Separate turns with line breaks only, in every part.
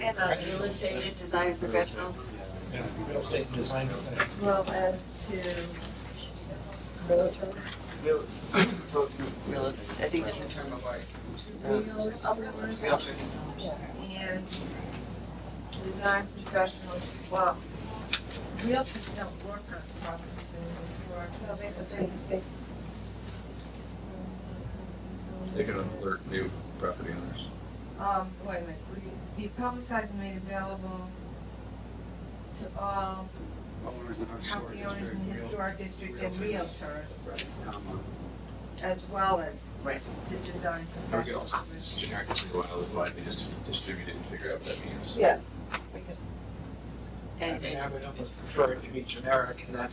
and the illustrated design professionals.
Yeah, real estate and design professionals.
Well, as to realtor,
Real, real, I think that's the term of art. Um,
realtors,
Realtors.
and design professionals, well, realtors don't work on properties in this world, so they, but they, they.
They can alert new property owners.
Um, wait a minute, will you be publicized and made available to all
Owners of our historic
property owners in the
district, real-
historic district and realtors,
Right, comma,
as well as
Right.
to design
Or we could also,
professionals.
it's generic, it's wild, widely just distribute it and figure out what that means.
Yeah.
I
And,
mean,
and,
I would almost prefer it to be generic in that,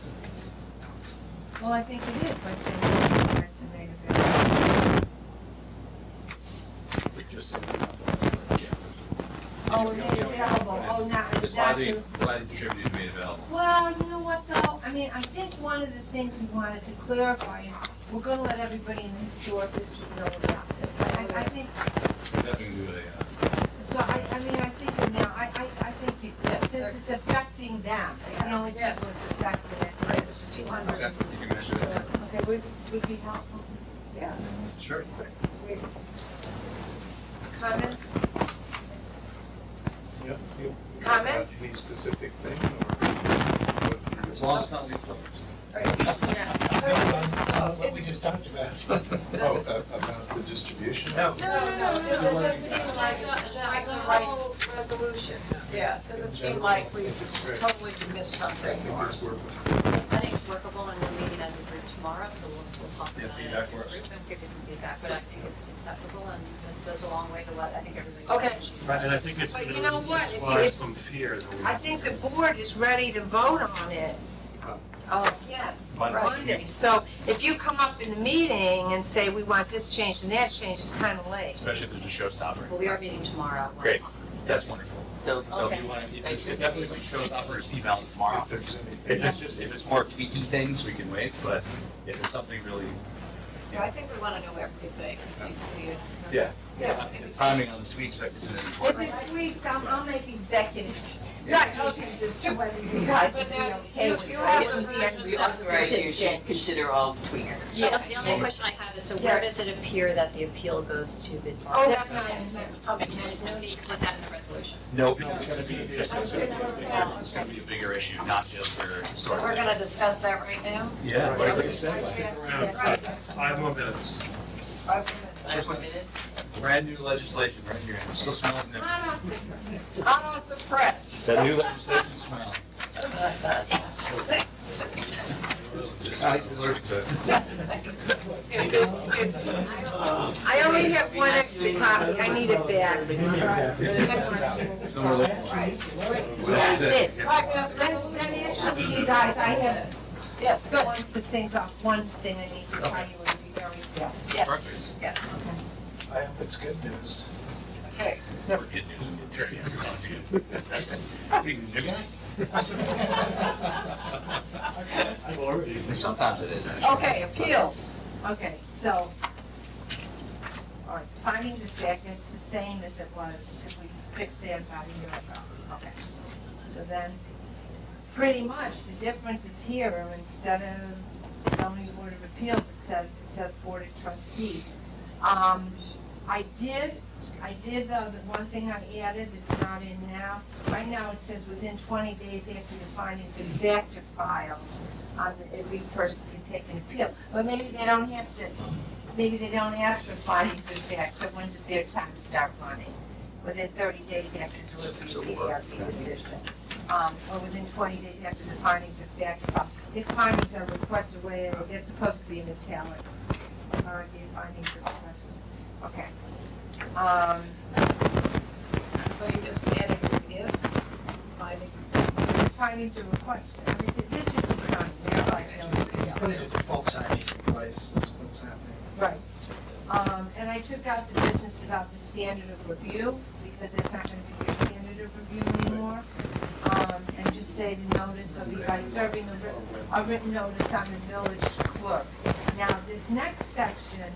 Well, I think it is, but they publicized and made available.
just,
Oh, and made available, oh, not,
Just
not
widely,
to.
widely distributed and made available.
Well, you know what though, I mean, I think one of the things we wanted to clarify is, we're gonna let everybody in the historic district know about this. I, I think
Nothing to do with a, uh,
So I, I mean, I think now, I, I, I think people, since it's affecting them, it's the only people it's affecting it, it's two
uh, okay,
hundred.
you can measure that.
Okay, would, would be helpful.
Sure.
Comments?
you know,
Comments?
Any specific thing or? As long as it's not leaf blowers.
what we just talked about.
Oh, about the distribution?
No.
No, no, no, it doesn't seem like, like the whole resolution. Yeah. Doesn't seem like we totally missed something. or-
I think it's workable, and we're meeting as a group tomorrow, so we'll, we'll talk
Yeah,
about it
feedback
as a group
works.
and give you some feedback, but I think it's acceptable, and it goes a long way to what I think everybody's.
Okay.
appreciating.
Right, and I think it's
But
going
you know
to
what?
inspire
If-
some fear. though.
I think the board is ready to vote on it. Oh, yeah, Monday. So if you come up in the meeting and say, we want this change and that change, it's kind of late.
Especially if there's a
Well,
showstopper.
we are meeting tomorrow. at one
Great.
o'clock.
That's wonderful.
so,
So if
Okay.
you want, to, it's it's definitely some showstoppers emails tomorrow.
If there's any-
If it's just, if it's more tweaky things, we can wait, but if it's something really,
Yeah, I think we want to know everything. You see it.
yeah.
Yeah.
The Timing on the tweaks, I consider
If
important.
it's tweaks, I'll, I'll make executive
Yeah.
notifications as to whether you guys would be okay with it.
You have
It would be
to-
under-
we authorize you to consider all tweaks.
The the only question I have is, so where does it appear that the appeal goes to the?
Oh, that's not-
And there's no need to put that in the resolution.
No, because it's gonna be, it's gonna it's gonna be a bigger issue, not just for.
So we're going to discuss that right now?
Yeah. whatever you say.
Yeah. Five more minutes.
Five more minutes?
Brand new legislation right here, it still smells new.
I don't think-
Out of the press.
That new legislation smell. I'm allergic to it.
I only have one extra copy, I need it back.
There's no more lip balm.
Yeah,
That's it.
this. Then, then actually, you guys, I have. Yes. Once the things off, one thing I need to tell you and be very fast.
Perfect.
I hope it's good news.
Okay.
It's never good news when the attorney has to talk to you. What are you, the new guy?
I've already.
Sometimes it is, actually.
Okay, appeals.
Okay, so, all right, findings of fact is the same as it was if we fixed that about a year ago. Okay. So then, pretty much, the difference is here, where instead of zoning board of appeals, it says, it says board of trustees. Um, I did, I did, though, the one thing I added that's not in now, right now it says within twenty days after the findings of fact are filed, on every person can take an appeal. But maybe they don't have to, maybe they don't ask for findings of fact, so when does their time start running? Within thirty days after delivery of the ARB decision. Um, or within twenty days after the findings of fact. are filed. If findings are requested, wait, they're supposed to be in italics. Or the findings are requested, okay. Um,
So you just added review, finding.
findings are requested. I mean, This is the time,
Put it in default timing device is what's happening.
Right. Um, and I took out the business about the standard of review, because it's not gonna be your standard of review anymore. Um, and just say the notice of you guys serving a written, a written notice on the village clerk. Now, this next section,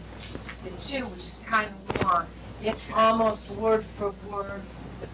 the two, which is kind of long, it's almost word for word